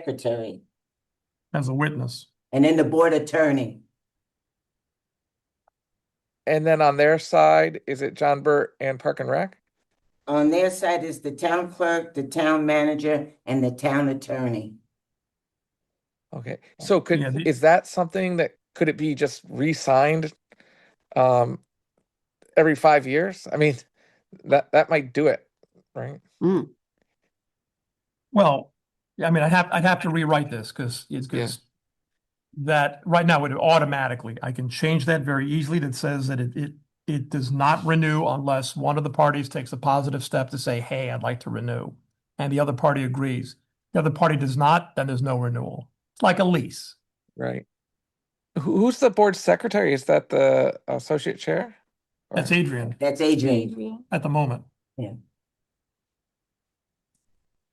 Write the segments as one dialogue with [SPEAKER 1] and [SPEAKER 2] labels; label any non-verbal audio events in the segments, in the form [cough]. [SPEAKER 1] secretary
[SPEAKER 2] as a witness.
[SPEAKER 1] and then the board attorney.
[SPEAKER 3] And then on their side, is it John Burt and Park and Rec?
[SPEAKER 1] On their side is the town clerk, the town manager, and the town attorney.
[SPEAKER 3] Okay, so could,
[SPEAKER 2] Yeah, the-
[SPEAKER 3] is that something that, could it be just re-signed? Um, every five years? I mean, that, that might do it, right?
[SPEAKER 2] Well, yeah, I mean, I'd have, I'd have to rewrite this because it's,
[SPEAKER 3] Yeah.
[SPEAKER 2] because that, right now, it automatically, I can change that very easily that says that it, it, it does not renew unless one of the parties takes a positive step to say, hey, I'd like to renew. And the other party agrees. The other party does not, then there's no renewal. It's like a lease.
[SPEAKER 3] Right. Who, who's the board secretary? Is that the associate chair?
[SPEAKER 2] That's
[SPEAKER 3] Or-
[SPEAKER 2] Adrian
[SPEAKER 1] That's Adrian.
[SPEAKER 2] at the moment.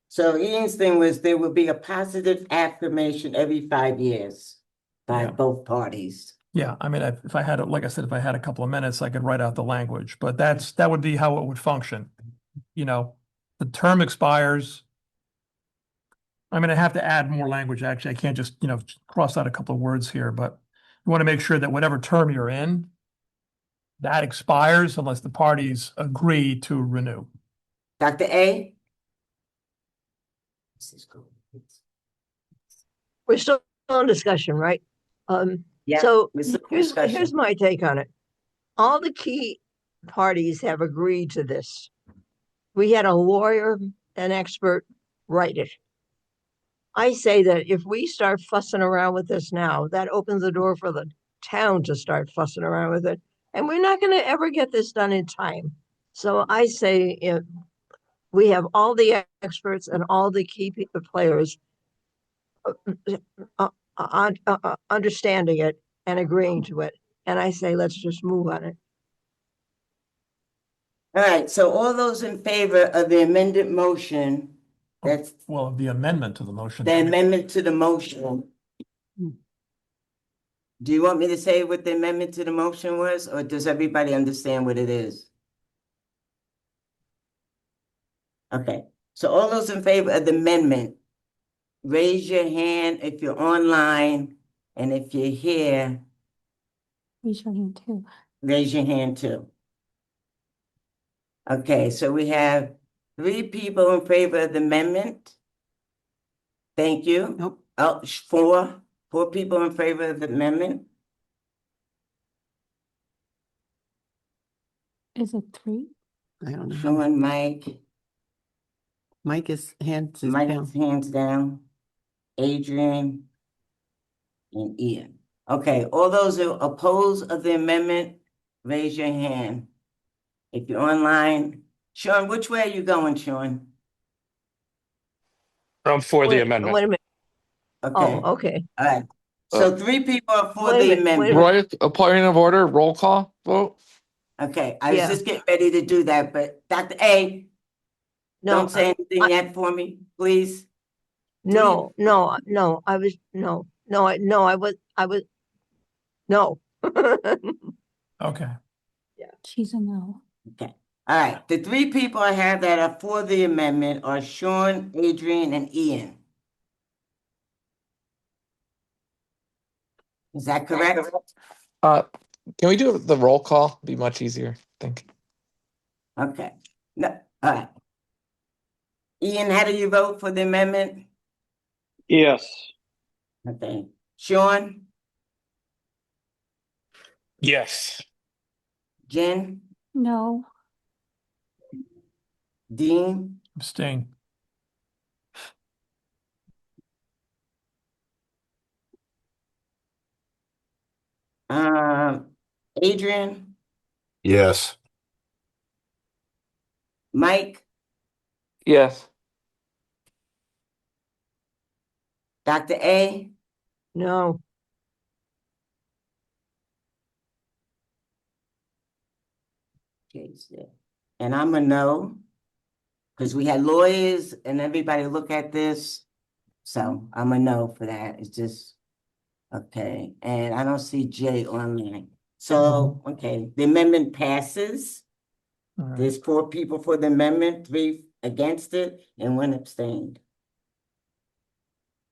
[SPEAKER 1] So Ian's thing was there will be a positive affirmation every five years by
[SPEAKER 2] Yeah.
[SPEAKER 1] both parties.
[SPEAKER 2] Yeah, I mean, if if I had, a- like I said, if I had a couple of minutes, I could write out the language, but that's, that would be how it would function. You know, the term expires. I mean, I have to add more language, actually. I can't just, you know, cross out a couple of words here, but you want to make sure that whatever term you're in, that expires unless the parties agree to renew.
[SPEAKER 1] Dr. A? This is cool.
[SPEAKER 4] We're still on discussion, right? Um,
[SPEAKER 1] Yeah,
[SPEAKER 4] so
[SPEAKER 1] we're still on
[SPEAKER 4] here's,
[SPEAKER 1] discussion.
[SPEAKER 4] here's my take on it. All the key parties have agreed to this. We had a lawyer, an expert write it. I say that if we start fussing around with this now, that opens the door for the town to start fussing around with it. And we're not gonna ever get this done in time. So I say, if we have all the experts and all the key pe- players uh, un- uh, uh, understanding it and agreeing to it. And I say, let's just move on it.
[SPEAKER 1] All right, so all those in favor of the amended motion, that's
[SPEAKER 2] Well, the amendment to the motion.
[SPEAKER 1] the amendment to the motion. Do you want me to say what the amendment to the motion was, or does everybody understand what it is? Okay, so all those in favor of the amendment, raise your hand if you're online, and if you're here,
[SPEAKER 5] Raise your hand too.
[SPEAKER 1] raise your hand too. Okay, so we have three people in favor of the amendment. Thank you.
[SPEAKER 6] Nope,
[SPEAKER 1] Oh, sh- four, four people in favor of the amendment?
[SPEAKER 5] Is it three?
[SPEAKER 6] I don't know.
[SPEAKER 1] Sean, Mike,
[SPEAKER 6] Mike is hands is down.
[SPEAKER 1] Mike's hands down, Adrian, and Ian. Okay, all those who oppose of the amendment, raise your hand. If you're online, Sean, which way are you going, Sean?
[SPEAKER 7] I'm for the
[SPEAKER 4] Wait- Wait
[SPEAKER 7] amendment. Mm-hmm.
[SPEAKER 4] a minute.
[SPEAKER 1] Okay,
[SPEAKER 4] Oh,
[SPEAKER 1] all
[SPEAKER 4] okay.
[SPEAKER 1] right. So three people are for
[SPEAKER 4] Wait a
[SPEAKER 1] the
[SPEAKER 4] minute, wait a
[SPEAKER 1] amendment.
[SPEAKER 4] minute.
[SPEAKER 3] Roy, a point of order, roll call vote?
[SPEAKER 1] Okay, I was
[SPEAKER 4] Yeah.
[SPEAKER 1] just getting ready to do that, but Dr. A,
[SPEAKER 4] No,
[SPEAKER 1] don't say anything
[SPEAKER 4] I-
[SPEAKER 1] yet for me, please.
[SPEAKER 4] no, no, no, I was, no, no, I, no, I was, I was, no. [laughs]
[SPEAKER 2] Okay,
[SPEAKER 5] She's a no.
[SPEAKER 1] All right, the three people I have that are for the amendment are Sean, Adrian, and Ian. Is that correct?
[SPEAKER 3] Uh, can we do the roll call? Be much easier, I think.
[SPEAKER 1] Okay, no, all right. Ian, how do you vote for the amendment?
[SPEAKER 8] Yes,
[SPEAKER 1] Okay, Sean,
[SPEAKER 7] Yes.
[SPEAKER 1] Jen,
[SPEAKER 5] No,
[SPEAKER 1] Dean,
[SPEAKER 2] abstain.
[SPEAKER 1] um, Adrian,
[SPEAKER 7] Yes.
[SPEAKER 1] Mike,
[SPEAKER 3] Yes.
[SPEAKER 1] Dr. A,
[SPEAKER 4] No,
[SPEAKER 1] Okay, so- And I'm a no, because we had lawyers and everybody look at this. So I'm a no for that. It's just, okay, and I don't see Jay online. So, okay, the amendment passes.
[SPEAKER 2] Mm-hmm. All right.
[SPEAKER 1] There's four people for the amendment, three against it, and one abstained.